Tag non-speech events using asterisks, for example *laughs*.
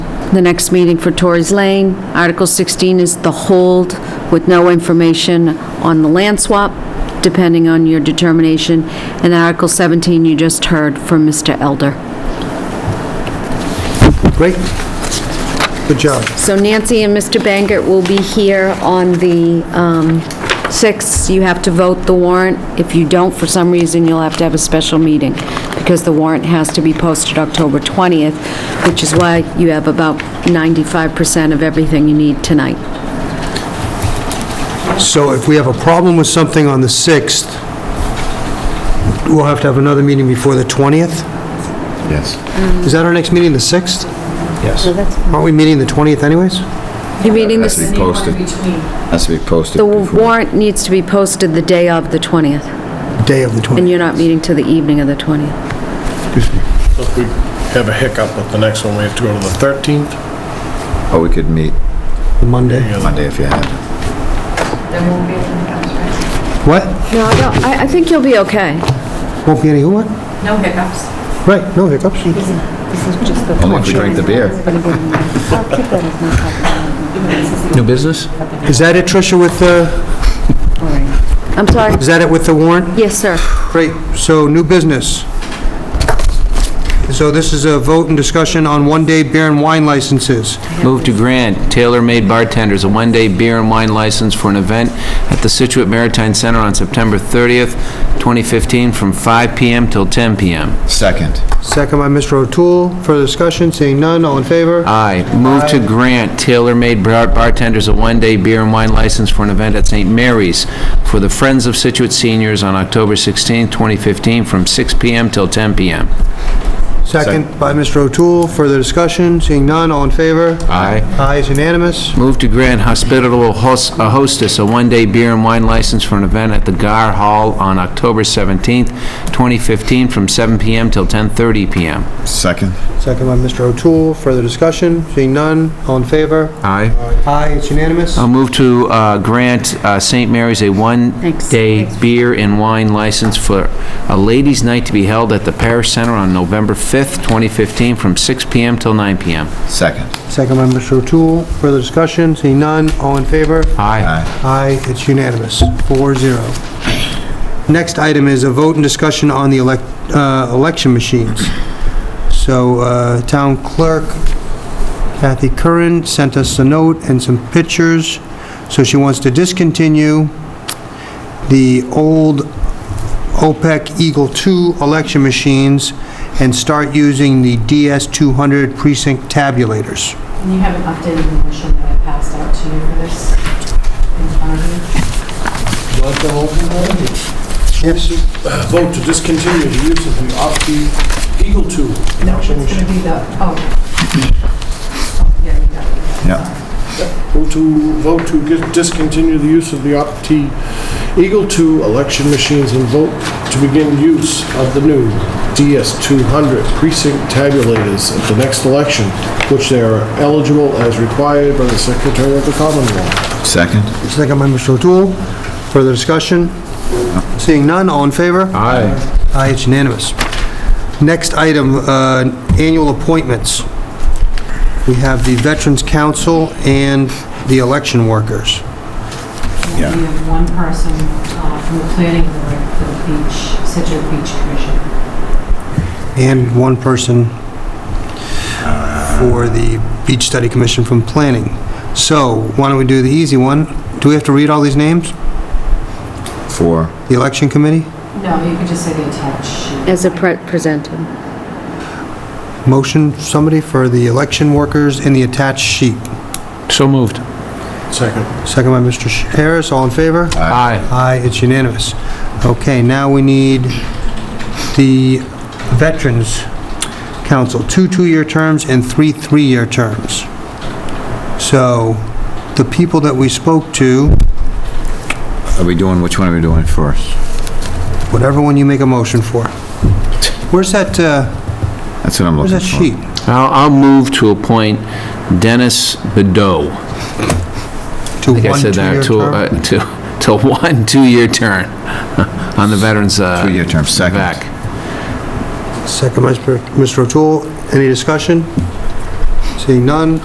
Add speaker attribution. Speaker 1: the next meeting for Torrey's Lane. Article 16 is the hold with no information on the land swap, depending on your determination. And Article 17, you just heard from Mr. Elder.
Speaker 2: Great. Good job.
Speaker 1: So Nancy and Mr. Bangert will be here on the um, 6th. You have to vote the warrant. If you don't, for some reason, you'll have to have a special meeting because the warrant has to be posted October 20th, which is why you have about 95% of everything you need tonight.
Speaker 2: So if we have a problem with something on the 6th, we'll have to have another meeting before the 20th?
Speaker 3: Yes.
Speaker 2: Is that our next meeting, the 6th?
Speaker 3: Yes.
Speaker 2: Aren't we meeting the 20th anyways?
Speaker 1: You meeting
Speaker 3: Has to
Speaker 1: this,
Speaker 3: be posted. Has to be posted.
Speaker 1: the
Speaker 3: before-
Speaker 1: warrant needs to be posted the day of the 20th,
Speaker 2: Day of the 20th.
Speaker 1: and you're not meeting till the evening of the 20th.
Speaker 4: If we have a hiccup with the next one, we have to go to the 13th.
Speaker 3: Or Oh, we could meet
Speaker 2: The Monday.
Speaker 3: Monday if you had. to.
Speaker 2: What?
Speaker 1: No, no, I I think you'll be okay.
Speaker 2: Won't be any who what?
Speaker 5: No hiccups.
Speaker 2: Right, no hiccups.
Speaker 3: Only if we drink the beer.
Speaker 6: New business?
Speaker 2: Is that it, Tricia, with the,
Speaker 1: I'm sorry.
Speaker 2: is that it with the warrant?
Speaker 1: Yes, sir.
Speaker 2: Great, so new business. So this is a vote and discussion on one-day beer and wine licenses.
Speaker 6: Move to grant Tailor Made Bartenders a one-day beer and wine license for an event at the Situate Maritime Center on September 30th, 2015, from 5 PM till 10 PM.
Speaker 3: Second.
Speaker 2: Second by Mr. O'Toole. Further discussion, seeing none, all in favor?
Speaker 6: Aye. Move to grant Tailor Made Bar- Bartenders a one-day beer and wine license for an event at St. Mary's for the Friends of Situate Seniors on October 16th, 2015, from 6 PM till 10 PM.
Speaker 2: Second by Mr. O'Toole. Further discussion, seeing none, all in favor?
Speaker 6: Aye.
Speaker 2: Aye is unanimous.
Speaker 6: Move to grant hospitable hos- uh, hostess a one-day beer and wine license for an event at the Gar Hall on October 17th, 2015, from 7 PM till 10:30 PM.
Speaker 3: Second.
Speaker 2: Second by Mr. O'Toole. Further discussion, seeing none, all in favor?
Speaker 6: Aye.
Speaker 2: Aye, it's unanimous.
Speaker 6: I'll move to uh, grant uh, St. Mary's a
Speaker 1: Thanks.
Speaker 6: one-day beer and wine license for a ladies' night to be held at the Parish Center on November 5th, 2015, from 6 PM till 9 PM.
Speaker 3: Second.
Speaker 2: Second by Mr. O'Toole. Further discussion, seeing none, all in favor?
Speaker 6: Aye.
Speaker 3: Aye.
Speaker 2: Aye, it's unanimous, 4-0. Next item is a vote and discussion on the elec- uh, election machines. So uh, Town Clerk Kathy Curran sent us a note and some pictures, so she wants to discontinue the old OPEC Eagle 2 election machines and start using the DS200 precinct tabulators.
Speaker 5: And you have an updated motion that I passed out to you for this in front of you.
Speaker 2: Yes.
Speaker 4: Vote to discontinue the use of the off-key Eagle 2.
Speaker 5: No, it's going to be the, oh. Yeah, you got it.
Speaker 3: Yeah.
Speaker 4: Vote to, vote to get- discontinue the use of the off-key Eagle 2 election machines and vote to begin use of the new DS200 precinct tabulators at the next election, which they are eligible as required by the Secretary of the Commonwealth.
Speaker 3: Second.
Speaker 2: Second by Mr. O'Toole. Further discussion? Seeing none, all in favor?
Speaker 6: Aye.
Speaker 2: Aye, it's unanimous. Next item, uh, annual appointments. We have the Veterans Council and the election workers.
Speaker 3: Yeah.
Speaker 5: We have one person uh, from the planning board for the beach, Situate Beach Commission.
Speaker 2: And one person for the Beach Study Commission from Planning. So, why don't we do the easy one? Do we have to read all these names?
Speaker 3: Four.
Speaker 2: The election committee?
Speaker 5: No, you could just say the attached sheet.
Speaker 1: As a pre- presented.
Speaker 2: Motion, somebody, for the election workers in the attached sheet.
Speaker 6: So moved.
Speaker 4: Second.
Speaker 2: Second by Mr. Harris, all in favor?
Speaker 6: Aye.
Speaker 2: Aye, it's unanimous. Okay, now we need the Veterans Council, two two-year terms and three three-year terms. So, the people that we spoke to,
Speaker 3: Are we doing, which one are we doing first?
Speaker 2: whatever one you make a motion for. Where's that, uh,
Speaker 3: That's what I'm
Speaker 2: where's
Speaker 3: looking
Speaker 2: that
Speaker 3: for.
Speaker 2: sheet?
Speaker 6: I'll I'll move to appoint Dennis Bedeau.
Speaker 2: To
Speaker 6: I think I
Speaker 2: one
Speaker 6: said that,
Speaker 2: two-year
Speaker 6: to,
Speaker 2: term?
Speaker 6: uh, *laughs* to, to one two-year term *laughs* on the Veterans... uh,
Speaker 3: Two-year term, second.
Speaker 6: vac. uh,
Speaker 2: Second by Mr. O'Toole. Any discussion? Seeing none,